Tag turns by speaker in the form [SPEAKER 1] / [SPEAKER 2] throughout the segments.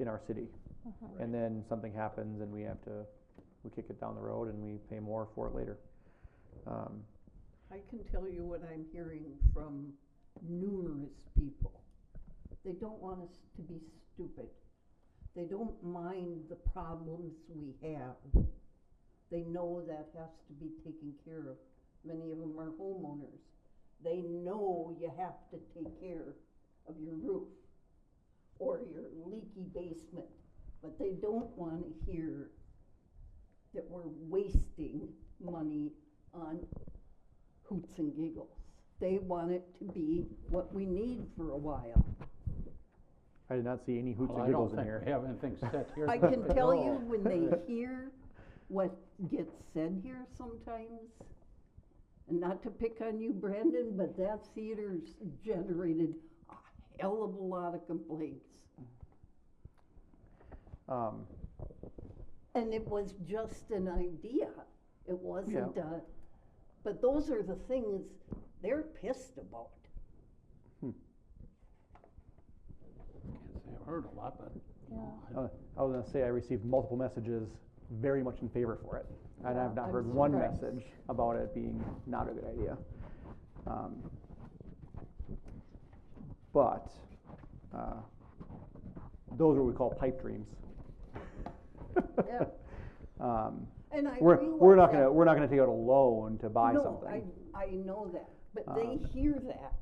[SPEAKER 1] in our city. And then something happens and we have to, we kick it down the road and we pay more for it later. Um,
[SPEAKER 2] I can tell you what I'm hearing from numerous people. They don't want us to be stupid. They don't mind the problems we have. They know that has to be taken care of. Many of them are homeowners. They know you have to take care of your roof or your leaky basement, but they don't wanna hear that we're wasting money on hoots and giggles. They want it to be what we need for a while.
[SPEAKER 1] I did not see any hoots
[SPEAKER 3] Well,
[SPEAKER 1] and
[SPEAKER 3] I don't
[SPEAKER 1] giggles in
[SPEAKER 3] think
[SPEAKER 1] here.
[SPEAKER 3] we have anything set here.
[SPEAKER 2] I can tell
[SPEAKER 3] No.
[SPEAKER 2] you, when they hear what gets said here sometimes, and not to pick on you, Brandon, but that theater's generated a hell of a lot of complaints.
[SPEAKER 1] Um,
[SPEAKER 2] And it was just an idea, it wasn't a, but those are the things they're pissed about.
[SPEAKER 1] Hmm.
[SPEAKER 3] Can't say I've heard a lot, but.
[SPEAKER 1] I was I was gonna say, I received multiple messages very much in favor for it. And I've not
[SPEAKER 2] I'm
[SPEAKER 1] heard one
[SPEAKER 2] surprised.
[SPEAKER 1] message about it being not a good idea. Um, But, uh, those are what we call pipe dreams.
[SPEAKER 2] Yeah.
[SPEAKER 1] Um,
[SPEAKER 2] And I
[SPEAKER 1] We're, we're not
[SPEAKER 2] realize that.
[SPEAKER 1] gonna, we're not gonna take out a loan to buy something. Um.
[SPEAKER 2] No, I, I know that, but they hear that,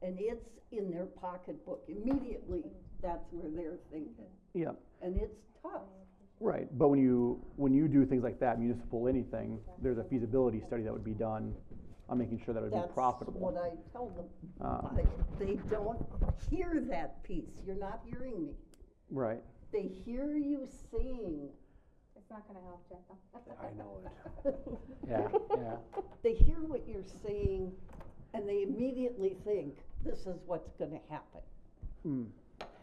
[SPEAKER 2] and it's in their pocketbook immediately, that's where they're thinking,
[SPEAKER 1] Yeah,
[SPEAKER 2] and it's tough.
[SPEAKER 1] right, but when you, when you do things like that, municipal anything, there's a feasibility study that would be done on making sure that it would be profitable.
[SPEAKER 2] That's what I tell them,
[SPEAKER 1] Um,
[SPEAKER 2] I- they don't hear that piece, you're not hearing me.
[SPEAKER 1] Right,
[SPEAKER 2] They hear you saying,
[SPEAKER 4] It's not gonna help, Jeff.
[SPEAKER 3] I know it. Yeah, yeah.
[SPEAKER 2] they hear what you're saying, and they immediately think, this is what's gonna happen.
[SPEAKER 1] Hmm.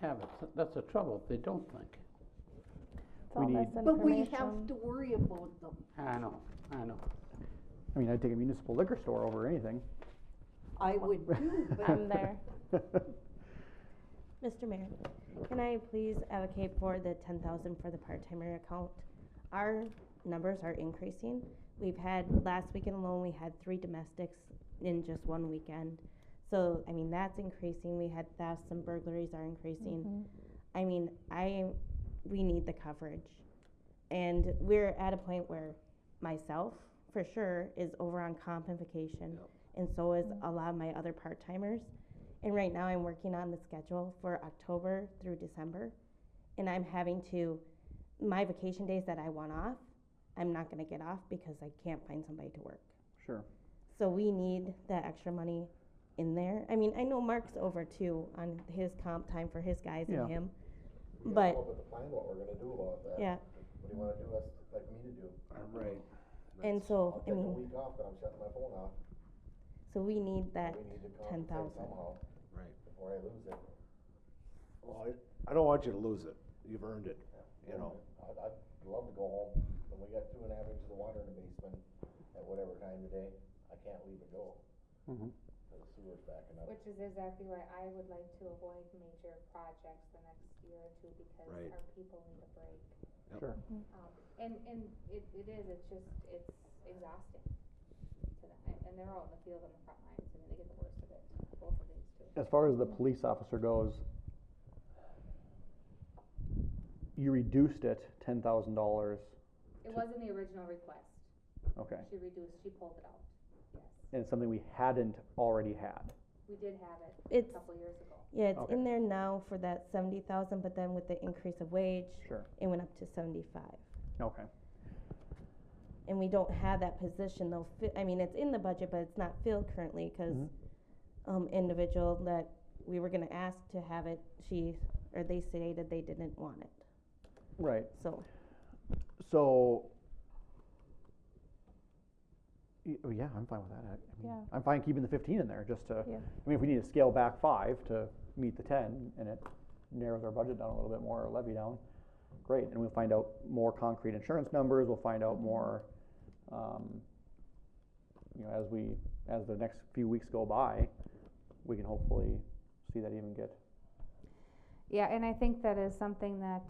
[SPEAKER 3] Have it. That's the trouble. They don't think.
[SPEAKER 5] It's
[SPEAKER 1] We
[SPEAKER 5] all
[SPEAKER 1] need-
[SPEAKER 5] misinformation.
[SPEAKER 2] But we have to worry about them.
[SPEAKER 3] I know, I know.
[SPEAKER 1] I mean, I'd take a municipal liquor store over anything.
[SPEAKER 2] I would too, but
[SPEAKER 5] I'm there. Mr. Mayor, can I please advocate for the ten thousand for the part-timer account? Our numbers are increasing. We've had, last weekend alone, we had three domestics in just one weekend. So, I mean, that's increasing. We had thefts and burglaries are increasing. I mean, I, we need the coverage. And we're at a point where myself, for sure, is over on comp and vacation. And so is a lot of my other part-timers. And right now, I'm working on the schedule for October through December. And I'm having to, my vacation days that I want off, I'm not gonna get off because I can't find somebody to work.
[SPEAKER 1] Sure.
[SPEAKER 5] So we need that extra money in there. I mean, I know Mark's over too on his comp time for his guys
[SPEAKER 1] Yeah.
[SPEAKER 5] and him.
[SPEAKER 6] We
[SPEAKER 5] But-
[SPEAKER 6] gotta come up with a plan what we're gonna do about that.
[SPEAKER 5] Yeah,
[SPEAKER 6] What do you wanna do, us, like me to do?
[SPEAKER 3] Right.
[SPEAKER 5] and so,
[SPEAKER 6] I'll
[SPEAKER 5] I
[SPEAKER 6] take a
[SPEAKER 5] mean,
[SPEAKER 6] week off, but I'm shutting my phone off.
[SPEAKER 5] so we need that
[SPEAKER 6] We need to
[SPEAKER 5] ten
[SPEAKER 6] compensate
[SPEAKER 5] thousand.
[SPEAKER 6] somehow.
[SPEAKER 7] Right.
[SPEAKER 6] Before I lose it.
[SPEAKER 7] Well, I, I don't want you to lose it. You've earned it, you know.
[SPEAKER 6] I'd, I'd love to go home, but we got two and a half inches of water in the basement at whatever time of day. I can't leave it go.
[SPEAKER 1] Mhm.
[SPEAKER 6] The sewer's backing up.
[SPEAKER 4] Which is exactly why I would like to avoid major projects the next year or two because
[SPEAKER 7] Right.
[SPEAKER 4] our people need a break.
[SPEAKER 7] Yep.
[SPEAKER 1] Sure.
[SPEAKER 4] Um, and, and it, it is, it's just, it's exhausting to them. And- And they're out in the field on the front lines. I mean, they get the worst of it, both of these two.
[SPEAKER 1] As far as the police officer goes, you reduced it ten thousand dollars,
[SPEAKER 4] It wasn't the original request.
[SPEAKER 1] okay,
[SPEAKER 4] She reduced, she pulled it out. Yes.
[SPEAKER 1] and it's something we hadn't already had.
[SPEAKER 4] We did have it a
[SPEAKER 5] It's,
[SPEAKER 4] couple years ago.
[SPEAKER 5] yeah, it's
[SPEAKER 1] Okay.
[SPEAKER 5] in there now for that seventy thousand, but then with the increase of wage,
[SPEAKER 1] Sure.
[SPEAKER 5] it went up to seventy-five.
[SPEAKER 1] Okay,
[SPEAKER 5] and we don't have that position though, fi- I mean, it's in the budget, but it's not filled currently, cause,
[SPEAKER 1] Mhm.
[SPEAKER 5] um, individual that we were gonna ask to have it, she, or they stated they didn't want it,
[SPEAKER 1] right,
[SPEAKER 5] so,
[SPEAKER 1] so. Y- oh, Yeah, I'm fine with that, I- I mean,
[SPEAKER 5] Yeah.
[SPEAKER 1] I'm fine keeping the fifteen in there, just to,
[SPEAKER 5] Yeah.
[SPEAKER 1] I mean, if we need to scale back five to meet the ten, and it narrows our budget down a little bit more, or levy down, great, and we'll find out more concrete insurance numbers, we'll find
[SPEAKER 5] Mm-hmm.
[SPEAKER 1] out more, um, you know, as we, as the next few weeks go by, we can hopefully see that even get
[SPEAKER 4] Yeah, and I think that is something that,